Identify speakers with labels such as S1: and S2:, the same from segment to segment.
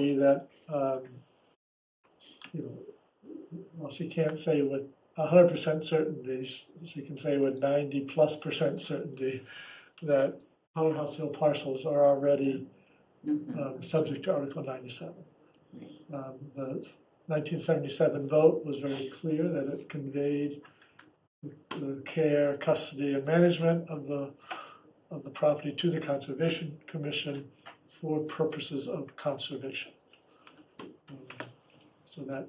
S1: be that, um, you know, well, she can't say with hundred percent certainty, sh- she can say with ninety plus percent certainty that Powder House Hill parcels are already,
S2: Uh,
S3: Mhm.
S1: um, subject to Article ninety-seven.
S3: Right.
S1: Um, the nineteen seventy-seven vote was very clear that it conveyed the care, custody, and management of the, of the property to the Conservation Commission for purposes of conservation. Um, So that,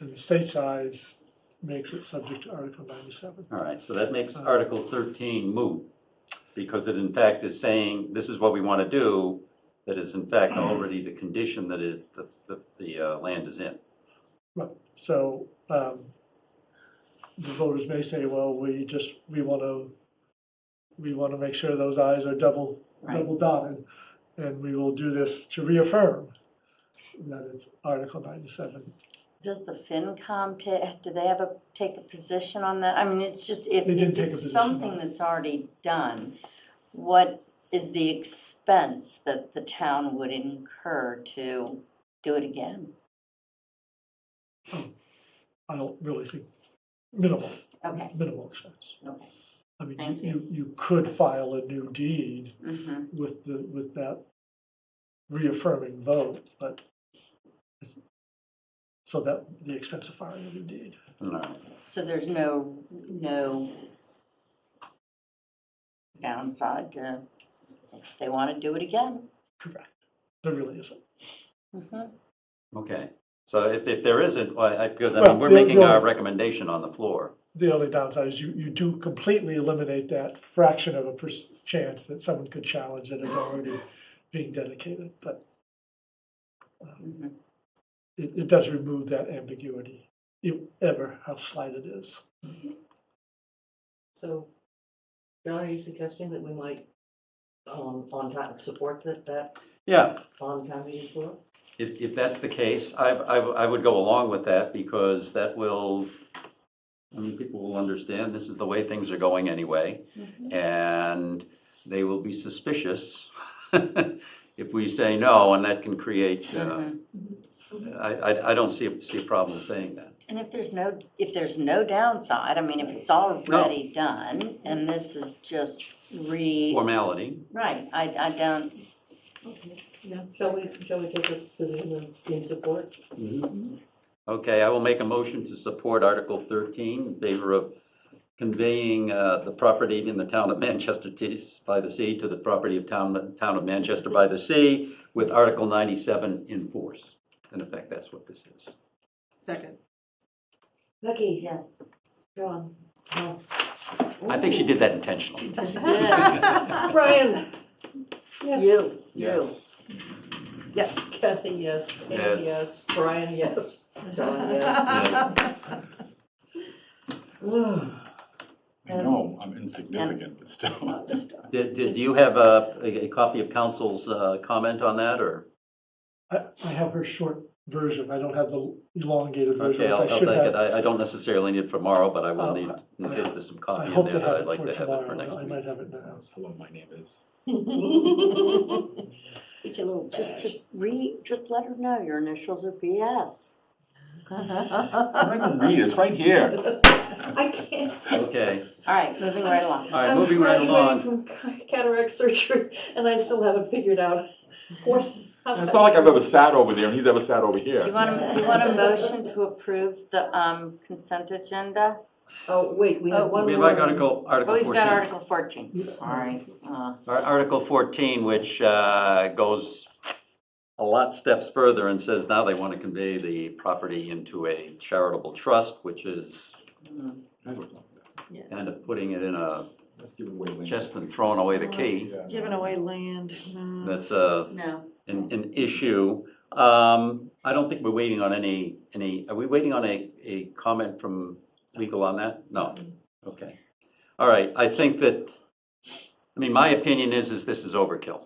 S1: in the state's eyes, makes it subject to Article ninety-seven.
S3: All right, so that makes Article thirteen moot, because it in fact is saying, this is what we want to do, that is in fact already the condition that is, that, that the uh, land is in.
S1: So, um, the voters may say, well, we just, we wanna, we wanna make sure those eyes are double,
S3: Right.
S1: double dotted. And we will do this to reaffirm that it's Article ninety-seven.
S2: Does the FinCom ta, do they have a, take a position on that? I mean, it's just, if
S1: They did
S2: if
S1: take a
S2: it's
S1: position on
S2: something
S1: it.
S2: that's already done, what is the expense that the town would incur to do it again?
S1: I don't really think, minimal,
S2: Okay,
S1: minimal expense.
S2: okay.
S1: I mean,
S2: Thank
S1: you, you could file a new deed
S2: Mm-hmm,
S1: with the, with that reaffirming vote, but it's, so that, the expense of filing a new deed.
S3: All right,
S2: so there's no, no downside to, if they want to do it again?
S1: Correct. There really isn't.
S2: Mhm.
S3: okay. So if, if there isn't, well, I, because I
S1: Well,
S3: mean, we're
S1: the-
S3: making
S1: the-
S3: our recommendation on the floor.
S1: The only downside is you, you do completely eliminate that fraction of a per- chance that someone could challenge it as already being dedicated, but
S2: Mhm.
S1: it, it does remove that ambiguity, if ever, how slight it is.
S4: So, John, are you suggesting that we might, um, on time, support that, that
S3: Yeah,
S4: on time meeting floor?
S3: If, if that's the case, I, I, I would go along with that because that will, I mean, people will understand this is the way things are going anyway.
S2: Mhm.
S3: And they will be suspicious if we say no, and that can create, uh,
S2: Mhm.
S3: I, I, I don't see, a- see a problem saying that.
S2: And if there's no, if there's no downside, I mean, if it's already done, and this is just re,
S3: Formality,
S2: right, I, I don't,
S4: Shall we, shall we take a position in, in support?
S3: Okay, I will make a motion to support Article 13 in favor of conveying uh, the property in the town of Manchester to- by the sea to the property of town, town of Manchester by the sea with Article 97 in force. In effect, that's what this is.
S5: Second.
S4: Becky,
S2: yes.
S4: John, no.
S3: I think she did that intentionally.
S4: Brian?
S2: Oh. You, you.
S4: Yes, Kathy, yes. Andy,
S3: Yes.
S4: Yes, Brian, yes. John, yes.
S6: I know, I'm insignificant, but still.
S3: Did, did you have a, a copy of council's uh, comment on that, or?
S1: I, I have her short version, I don't have the elongated version,
S3: Okay,
S1: which
S3: I'll,
S1: I
S3: I'll take
S1: should have.
S3: it. I, I don't necessarily need it for tomorrow, but I will
S1: Um,
S3: need, in case there's some
S1: I
S3: copy in
S1: hope
S3: there
S1: to
S3: that
S1: have
S3: I'd
S1: it
S3: like
S1: for
S3: to have it for
S1: tomorrow,
S3: next
S1: I
S3: week.
S1: might have it now.
S6: Hello, my name is.
S4: Get your little
S2: Just, just re, just let her know your initials are BS.
S6: I'm not gonna read, it's right here.
S4: I can't.
S3: Okay,
S2: All right, moving right along.
S3: all right, moving right along.
S4: I'm graduating from cataract surgery and I still haven't figured out what.
S6: It's not like I've ever sat over there and he's ever sat over
S2: Do you
S6: here.
S2: want, a- do you want a motion to approve the um, consent agenda?
S4: Oh, wait, we have one
S3: We
S4: more.
S3: like Article,
S2: Oh,
S3: Article
S2: we've got
S3: 14.
S2: Article fourteen, all right. uh,
S3: Ar- Article 14, which uh, goes a lot steps further and says now they want to convey the property into a charitable trust, which is
S2: mm.
S3: kind of putting it in a
S6: Let's give away land.
S3: chest and throwing away the key.
S6: Yeah.
S5: Giving away land,
S4: Mm.
S5: no.
S3: That's uh, a,
S2: No,
S3: an, an issue. Um, I don't think we're waiting on any, any, are we waiting on a, a comment from legal on that? No, okay. All right, I think that, I mean, my opinion is, is this is overkill.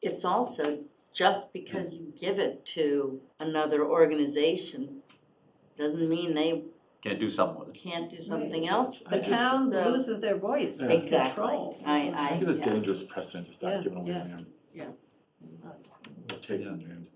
S2: it's also just because you give it to another organization doesn't mean they
S3: Can't do something with it.
S2: can't do something else.
S5: The
S2: with it,
S5: town
S2: so-
S5: loses their voice
S6: Yeah.
S5: and
S2: Exactly,
S5: control.
S2: I, I,
S6: I think it's a
S2: yeah.
S6: dangerous precedent to
S5: Yeah,
S6: start giving away
S5: yeah,
S6: land.
S5: yeah.
S6: Or taking land.